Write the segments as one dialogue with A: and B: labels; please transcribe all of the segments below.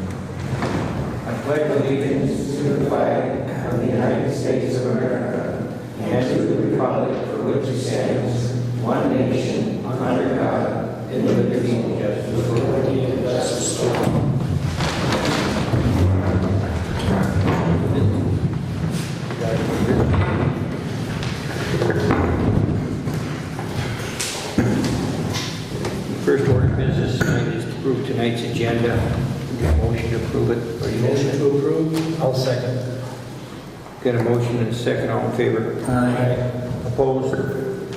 A: I pledge allegiance to the flag of the United States of America and to the republic for which it stands, one nation, under God, indivisible, with liberty and justice for all. First order of business tonight is to approve tonight's agenda. Motion to approve it. Or you
B: Motion to approve? I'll second.
A: Got a motion and a second, all in favor?
B: Aye.
A: Opposed?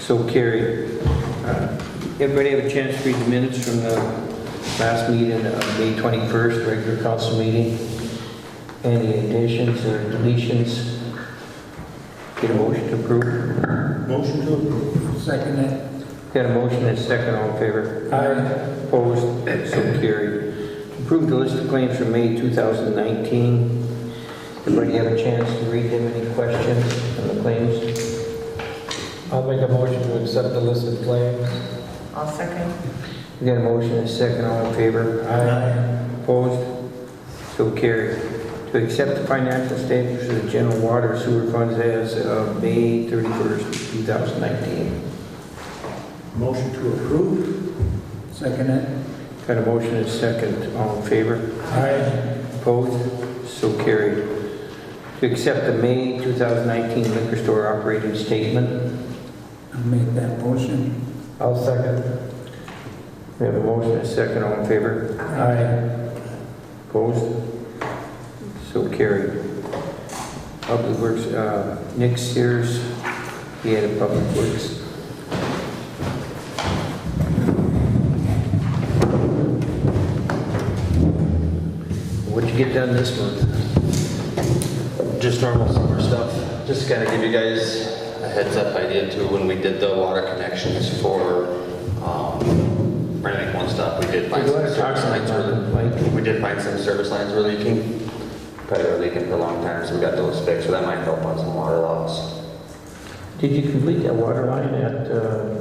A: So carried. Uh, Everybody have a chance to read the minutes from the last meeting of May 21st, regular council meeting? Any additions or deletions? Get a motion to approve.
B: Motion to approve. Second it.
A: Got a motion and a second, all in favor?
B: Aye.
A: Opposed? So carried. Approve the list of claims for May 2019. Everybody have a chance to read them, any questions on the claims?
B: I'll make a motion to accept the list of claims.
C: I'll second.
A: We got a motion and a second, all in favor?
B: Aye.
A: Opposed? So carried. To accept the financial statements of the general water sewer funds as of May 31st, 2019.
B: Motion to approve? Second it.
A: Got a motion and a second, all in favor?
B: Aye.
A: Opposed? So carried. To accept the May 2019 liquor store operating statement.
B: I'll make that motion. I'll second.
A: We have a motion and a second, all in favor?
B: Aye.
A: Opposed? So carried. Public Works, uh, Nick Sears, he had a Public Works. What'd you get done this month?
D: Just normal summer stuff. Just kind of give you guys a heads up idea too. When we did the water connections for um, Rennick One Stop, we did find
A: Go
D: some
A: ahead, talk
D: service
A: to
D: lines
A: them,
D: were
A: Mike.
D: we did find some service lines were leaking. Probably were leaking for a long time, so we got those fixed. So that might help on some water loss.
A: Did you complete that water line at, uh,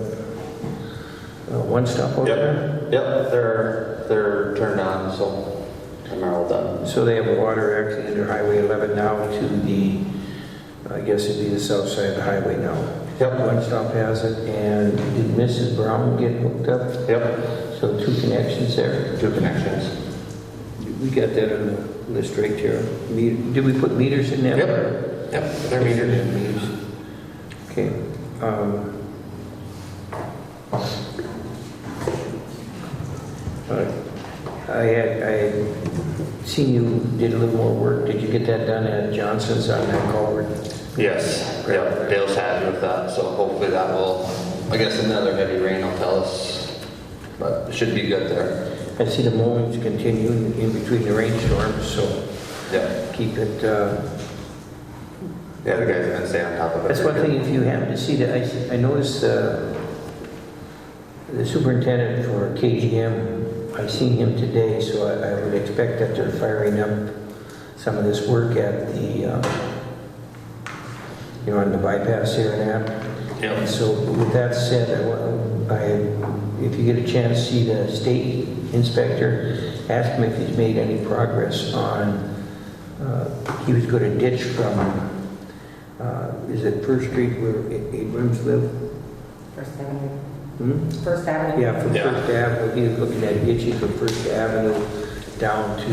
A: uh, One Stop over there?
D: Yep, they're they're turned on, so they're all done.
A: So they have water actually under Highway 11 now to the, I guess it'd be the south side of the highway now.
D: Yep,
A: One stop has it, and did Mrs. Brown get hooked up?
D: yep,
A: So two connections there.
D: two connections.
A: We got that on the list right here. Me- Did we put meters in there?
D: Yep, yep, they're metered.
A: Meters. Okay. um, uh, I had, I had seen you did a little more work. Did you get that done at Johnson's on that culvert?
D: Yes, yeah, Dale's happy with that, so hopefully that will, I guess another heavy rain will tell us, but it should be good there.
A: I see the mowings continuing in between the rainstorms, so
D: Yeah,
A: keep it, uh,
D: yeah, the guys have been staying on top of it.
A: That's one thing, if you happen to see that, I, I noticed, uh, the superintendent for KGM, I seen him today, so I, I would expect that they're firing up some of this work at the, uh, you know, on the bypass here and that. And
D: Yep,
A: so with that said, I, wa- I, if you get a chance, see the state inspector, ask him if he's made any progress on, uh, he was gonna ditch from, uh, is it First Street where A- Abrams lived?
C: First Avenue.
A: Hmm?
C: First Avenue?
A: Yeah, from
D: Yeah.
A: First Avenue, he was looking at ditching from First Avenue down to,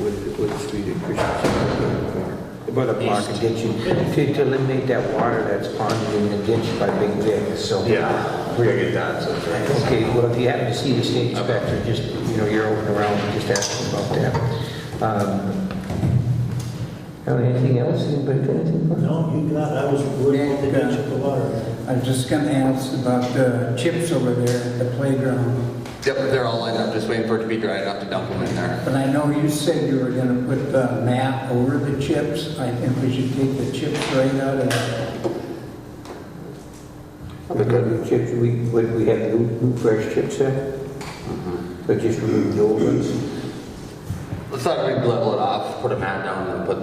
A: what, what street in Christian? About a block of ditching, to, to eliminate that water that's ponded in the ditch by Big Vic, so.
D: yeah, we're gonna get that, so. it's-
A: Okay, well, if you happen to see the state inspector, just, you know, you're over and around, just ask him about that. Um, oh, Anything else, anybody got anything? for us?
E: No, you got, I was worried about the bench of the water.
B: I was just gonna ask about the chips over there at the playground,
D: Yep, they're all lined up, just waiting for it to be dry enough to dump them in there.
B: but I know you said you were gonna put the mat over the chips. I think we should take the chips right out of
A: We got Chips, we, what, we have new, new fresh chips there? So just remove the old ones?
D: Let's not level it off, put a mat down and put